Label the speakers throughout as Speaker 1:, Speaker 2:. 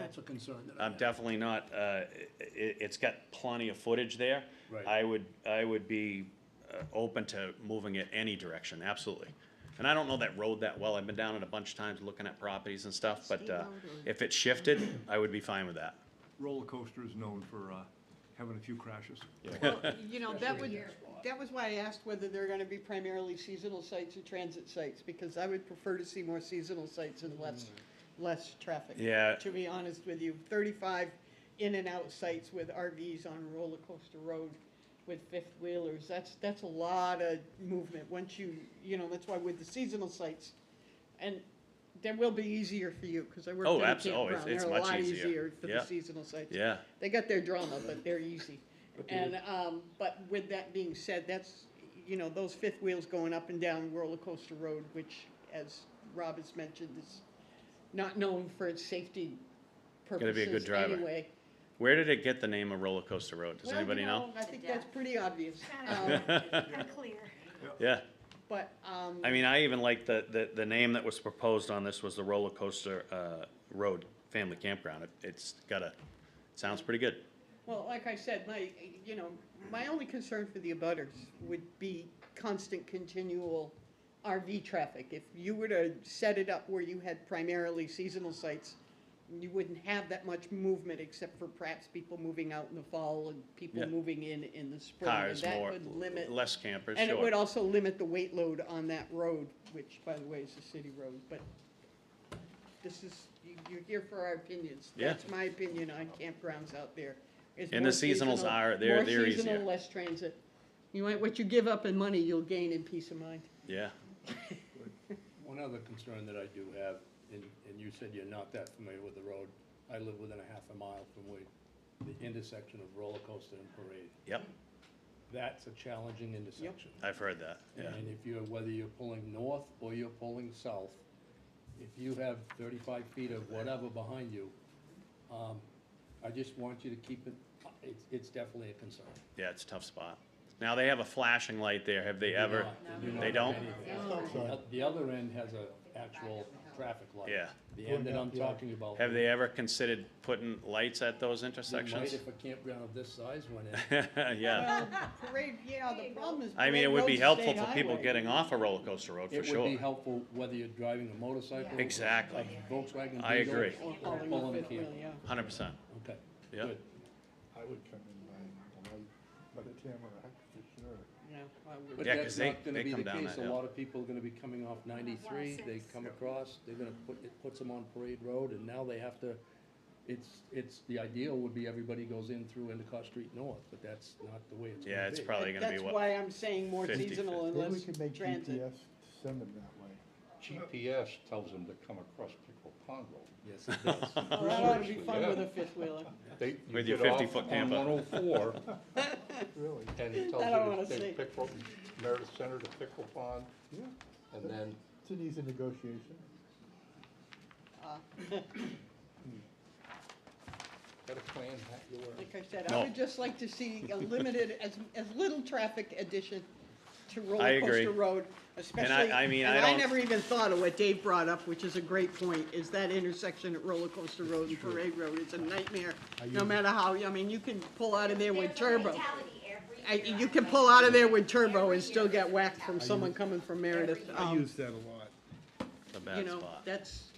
Speaker 1: that's a concern that I
Speaker 2: I'm
Speaker 1: have.
Speaker 2: definitely not, uh, i- i- it's got plenty of footage there.
Speaker 1: Right.
Speaker 2: I would, I would be, uh, open to moving it any direction, absolutely. And I don't know that road that well, I've been down it a bunch of times looking at properties and stuff, but,
Speaker 3: State
Speaker 2: uh,
Speaker 3: road or-
Speaker 2: if it shifted, I would be fine with that.
Speaker 4: Roller coaster is known for uh, having a few crashes.
Speaker 3: Well, You know, that would,
Speaker 1: Especially in that spot.
Speaker 3: that was why I asked whether they're gonna be primarily seasonal sites or transit sites, because I would prefer to see more seasonal sites and less, less traffic.
Speaker 2: Yeah.
Speaker 3: To be honest with you, thirty-five in and out sites with RVs on roller coaster road with fifth wheelers, that's, that's a lot of movement, once you, you know, that's why with the seasonal sites, and that will be easier for you, cause I worked
Speaker 2: Oh,
Speaker 3: at a
Speaker 2: abso- oh, it's-
Speaker 3: campground,
Speaker 2: it's
Speaker 3: they're a
Speaker 2: much
Speaker 3: lot
Speaker 2: easier.
Speaker 3: easier for the
Speaker 2: Yeah.
Speaker 3: seasonal sites.
Speaker 2: Yeah,
Speaker 3: They got their drama, but they're easy. And, um, but with that being said, that's, you know, those fifth wheels going up and down roller coaster road, which, as Rob has mentioned, is not known for its safety
Speaker 2: Gotta be a good
Speaker 3: purposes
Speaker 2: driver.
Speaker 3: anyway.
Speaker 2: where did it get the name of Roller Coaster Road, does
Speaker 3: Well, you
Speaker 2: anybody know?
Speaker 3: I think that's pretty obvious. Um,
Speaker 5: Kind of clear.
Speaker 2: Yeah,
Speaker 3: But, um,
Speaker 2: I mean, I even like the, the, the name that was proposed on this was the Roller Coaster, uh, Road Family Campground, It- it's got a, it sounds pretty good.
Speaker 3: well, like I said, my, you know, my only concern for the abutters would be constant continual RV traffic. If you were to set it up where you had primarily seasonal sites, you wouldn't have that much movement except for perhaps people moving out in the fall and people
Speaker 2: Yeah.
Speaker 3: moving in in the spring. and
Speaker 2: Cars more,
Speaker 3: That would limit,
Speaker 2: less campers, sure.
Speaker 3: and it would also limit the weight load on that road, which by the way is a city road, but this is, you- you're here for our opinions.
Speaker 2: Yeah.
Speaker 3: That's my opinion on campgrounds out there. It's
Speaker 2: And the
Speaker 3: more
Speaker 2: seasonals
Speaker 3: seasonal-
Speaker 2: are- they're- they're
Speaker 3: More seasonal,
Speaker 2: easier.
Speaker 3: less transit. You want, what you give up in money, you'll gain in peace of mind.
Speaker 2: Yeah,
Speaker 1: One other concern that I do have, and, and you said you're not that familiar with the road, I live within a half a mile from where, the intersection of roller coaster and parade.
Speaker 2: yep,
Speaker 1: That's a challenging intersection.
Speaker 2: I've heard that, yeah.
Speaker 1: And if you're, whether you're pulling north or you're pulling south, if you have thirty-five feet of whatever behind you, um, I just want you to keep it, it's, it's definitely a concern.
Speaker 2: Yeah, it's a tough spot. Now, they have a flashing light there, have they ever? They don't?
Speaker 1: The other end has a actual traffic light.
Speaker 2: Yeah.
Speaker 1: The end that I'm talking about.
Speaker 2: Have they ever considered putting lights at those
Speaker 1: They might
Speaker 2: intersections?
Speaker 1: If a campground of this size went in.
Speaker 2: Yeah,
Speaker 3: Well, parade, yeah, the problem is.
Speaker 2: I mean, it
Speaker 3: parade
Speaker 2: would be
Speaker 3: road's a
Speaker 2: helpful
Speaker 3: state
Speaker 2: for people
Speaker 3: highway.
Speaker 2: getting off a roller coaster road, for
Speaker 1: It would be
Speaker 2: sure.
Speaker 1: helpful whether you're driving a motorcycle.
Speaker 2: Exactly.
Speaker 1: a Volkswagen.
Speaker 2: I
Speaker 1: Beetle,
Speaker 2: agree.
Speaker 3: Or
Speaker 1: Or
Speaker 3: hauling
Speaker 1: pulling
Speaker 3: a
Speaker 1: a
Speaker 3: fifth wheel,
Speaker 1: camper.
Speaker 3: yeah.
Speaker 2: Hundred percent,
Speaker 1: Okay.
Speaker 2: yeah.
Speaker 1: good.
Speaker 6: I would come in by the light, by the Tamarack for sure.
Speaker 3: Yeah, I would.
Speaker 1: But
Speaker 2: Yeah,
Speaker 1: that's
Speaker 2: 'cause they-
Speaker 1: not gonna
Speaker 2: they
Speaker 1: be
Speaker 2: come
Speaker 1: the
Speaker 2: down
Speaker 1: case.
Speaker 2: that
Speaker 1: A
Speaker 2: hill.
Speaker 1: lot of people are gonna be coming off ninety-three, they come across, they're gonna put, it puts them on Parade Road, and now they have to, it's, it's, the ideal would be everybody goes in through Endicott Street North, but that's not the way it's gonna be.
Speaker 2: Yeah, it's probably gonna be
Speaker 3: That's
Speaker 2: what,
Speaker 3: why I'm saying more
Speaker 2: 50,
Speaker 3: seasonal and
Speaker 6: Maybe we
Speaker 3: less
Speaker 6: could make
Speaker 3: transit.
Speaker 6: GPS send them that way.
Speaker 7: GPS tells them to come across Pickle Pond Road.
Speaker 1: Yes, it does.
Speaker 3: Well, that ought to be fun
Speaker 7: Yeah.
Speaker 3: with a fifth wheeler.
Speaker 7: They- you
Speaker 2: With your
Speaker 7: get off
Speaker 2: 50-foot
Speaker 7: on
Speaker 2: camper.
Speaker 7: 104,
Speaker 6: Really?
Speaker 7: and it
Speaker 3: I don't
Speaker 7: tells
Speaker 3: wanna
Speaker 7: you to
Speaker 3: see.
Speaker 7: take Pickle, Meredith Center to Pickle Pond,
Speaker 6: Yeah.
Speaker 7: and then
Speaker 6: It's an easy negotiation.
Speaker 7: got a plan that you were.
Speaker 3: Like I said, I
Speaker 2: No.
Speaker 3: would just like to see a limited, as, as little traffic addition to
Speaker 2: I
Speaker 3: roller
Speaker 2: agree.
Speaker 3: coaster road, especially.
Speaker 2: I mean,
Speaker 3: and
Speaker 2: I don't-
Speaker 3: never even thought of what Dave brought up, which is a great point, is that intersection at roller coaster road and parade road, it's a nightmare. No matter how, I mean, you can pull out of there with turbo. I- You can pull out of there with turbo and still get whacked from someone coming from Meredith.
Speaker 8: I
Speaker 3: Um,
Speaker 8: use that a lot.
Speaker 2: a
Speaker 3: You
Speaker 2: bad
Speaker 3: know,
Speaker 2: spot.
Speaker 3: that's,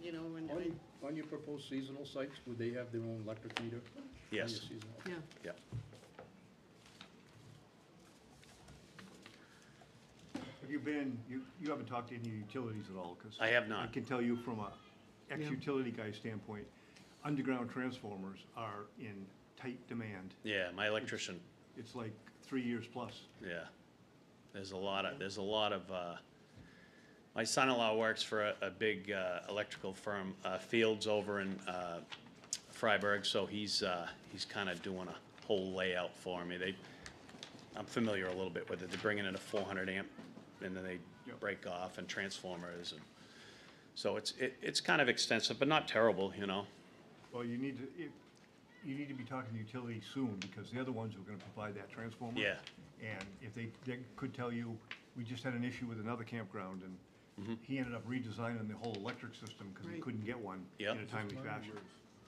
Speaker 3: you know, and, I-
Speaker 1: On, on your proposed seasonal sites, would they have their own electric meter? on your
Speaker 2: Yes,
Speaker 1: seasonal?
Speaker 3: yeah.
Speaker 2: yeah.
Speaker 4: Have you been, you, you haven't talked to any utilities at all, because.
Speaker 2: I have not.
Speaker 4: I can tell you from a ex-utility guy standpoint, underground transformers are in tight demand.
Speaker 2: Yeah, my electrician,
Speaker 4: It's like three years plus.
Speaker 2: yeah. There's a lot of, there's a lot of, uh, my son-in-law works for a, a big, uh, electrical firm, uh, Fields over in, uh, Freiburg, so he's, uh, he's kinda doing a whole layout for me. They, I'm familiar a little bit with it. They're bringing in a four hundred amp, and then they
Speaker 4: Yep.
Speaker 2: break off and transformers and, so it's, it, it's kind of extensive, but not terrible, you know?
Speaker 4: Well, you need to, if, you need to be talking to utilities soon, because they're the ones who are gonna provide that transformer.
Speaker 2: Yeah.
Speaker 4: And if they, they could tell you, we just had an issue with another campground, and he ended up redesigning the whole electric system, because he
Speaker 3: Right.
Speaker 4: couldn't get one
Speaker 2: Yep.
Speaker 4: in a timely fashion.